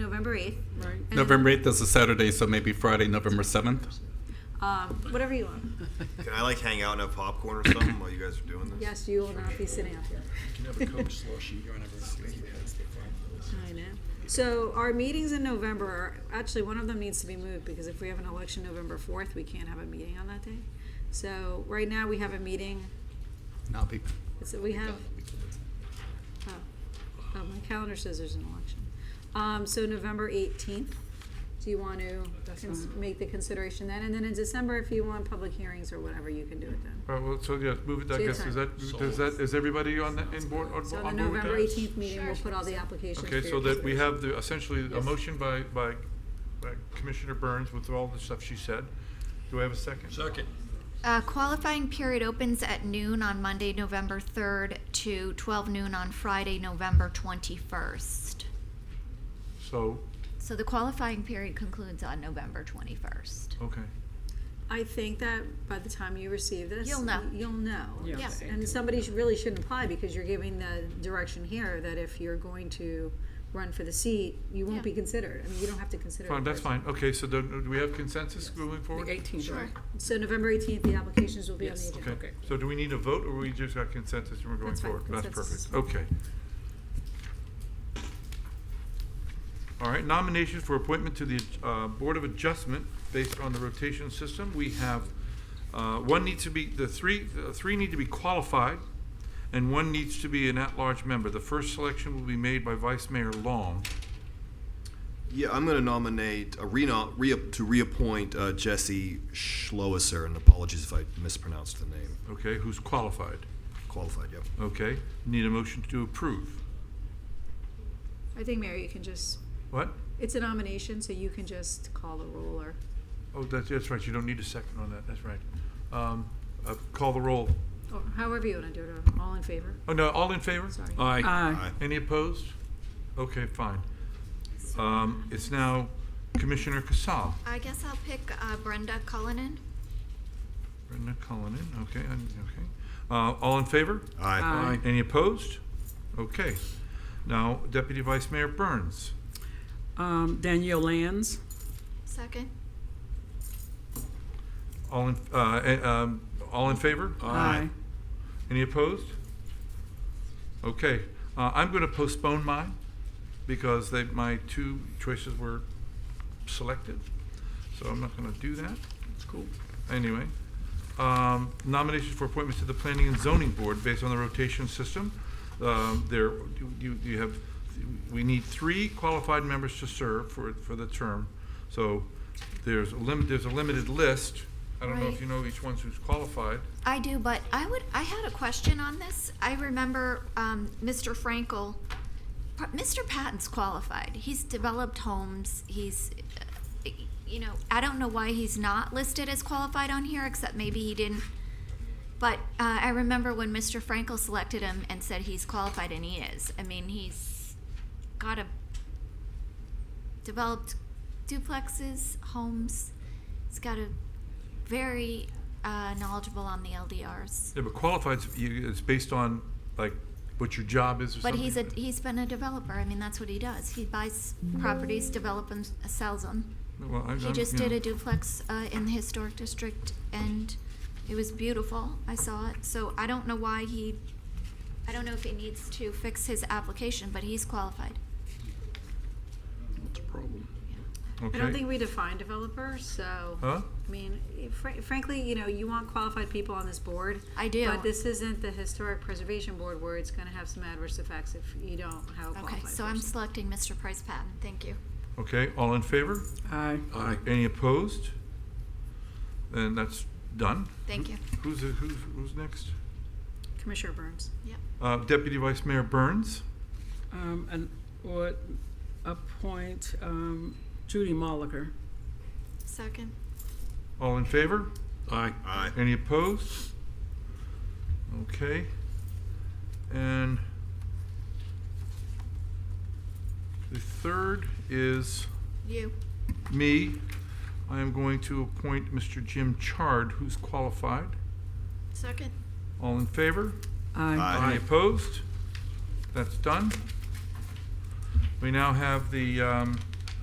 November 8th. Right. And- November 8th is a Saturday, so maybe Friday, November 7th? Um, whatever you want. Can I like hang out and have popcorn or something while you guys are doing this? Yes, you will not be sitting up here. I know. So our meetings in November, are actually, one of them needs to be moved, because if we have an election November fourth, we can't have a meeting on that day. So right now, we have a meeting, Not be, so we have, oh, oh, my calendar says there's an election. Um, so November eighteenth, do you want to cons- make the consideration then? And then in December, if you want public hearings or whatever, you can do it then. Uh, Well, well, so yes, move it, So I it's guess, fine. is that, does that, is everybody on the, in board, on So the on board with November that? eighteenth meeting, we'll put all the applications for Okay, your so that we have consideration. the, uh, essentially, a motion by, by by Commissioner Burns with all the stuff she said. Do I have a second? Second. Uh, qualifying period opens at noon on Monday, November 3rd to 12 noon on Friday, November 21st. So, So the qualifying period concludes on November 21st. okay. I think that by the time you receive this. You'll know. You'll know. Yeah. Yeah. And somebody sh- really shouldn't apply because you're giving the direction here that if you're going to run for the seat, you won't Yeah. be considered. I mean, you don't have to consider. Fine, the that's person. fine. Okay, so then, do we have consensus moving The forward? 18th, right? So November eighteenth, the applications will be on the Yes. agenda. Okay, Okay. so do we need a vote, or we just got consensus and we're going That's fine, forward? consensus. perfect, okay. All right, nominations for appointment to the uh, Board of Adjustment based on the rotation system. We have, uh, one needs to be, the three, the three need to be qualified, and one needs to be an at-large member. The first selection will be made by Vice Mayor Long. Yeah, I'm going to nominate a reno, re, to reappoint uh, Jesse Schloesser, and apologies if I mispronounced the name. Okay, who's qualified? Qualified, yep. Okay, need a motion to approve. I think, Mary, you can just, What? it's a nomination, so you can just call the roll or, Oh, that's, that's right, you don't need a second on that, that's right. Um, uh, Call the roll. or however you want to do it, or all in favor. Oh, no, all in favor? Sorry. aye, Aye. Any opposed? Okay, fine. Um, It's now Commissioner Casal, I guess I'll pick uh, Brenda Cullinan. Brenda Cullinan, okay, and- okay. Uh, All in favor? Aye. Aye. Any opposed? Okay. Now Deputy Vice Mayor Burns. Um, Danielle Lands, Second. All in, uh, eh, um, all in favor? aye. Any opposed? Okay, uh, I'm going to postpone mine because they, my two choices were selected, so I'm not going to do that. It's cool. Anyway, um, nominations for appointments to the Planning and Zoning Board based on the rotation system. Um, There, you, you have, we need three qualified members to serve for, for the term. So there's a limit, there's a limited list. I don't know if Right. you know each one's who's qualified. I do, but I would, I had a question on this. I remember um, Mr. Frankel, Pa- Mr. Patton's qualified. He's developed homes, he's, uh, you know, I don't know why he's not listed as qualified on here, except maybe he didn't. But uh, I remember when Mr. Frankel selected him and said he's qualified, and he is. I mean, he's got a developed duplexes, homes. He's got a very uh, knowledgeable on the LDRs. Yeah, but qualified, it's based on, like, what your job is or something? But he's a he's been a developer. I mean, that's what he does. He buys properties, develops them, sells them. Well, I- He I'm- just you know. did a duplex uh, in the historic district, and it was beautiful. I saw it. So I don't know why he. I don't know if he needs to fix his application, but he's qualified. I don't Okay. think we define developer, so. Huh? I mean, fr- frankly, you know, you want qualified people on this board. I do. But this isn't the historic preservation board where it's gonna have some adverse effects if you don't have a qualified Okay, so I'm person. selecting Mr. Price Patton. Thank you. Okay, all in favor? Aye. Aye. Any opposed? Then that's done. Thank you. Who's, who's, who's next? Commissioner Burns. Yep. Uh, Deputy Vice Mayor Burns? Um, and would appoint, um, Judy Moliker. Second. All in favor? Aye. Aye. Any opposed? Okay. And the third is You. me. I am going to appoint Mr. Jim Chard, who's qualified. Second. All in favor? Aye. Any opposed? That's done. We now have the um,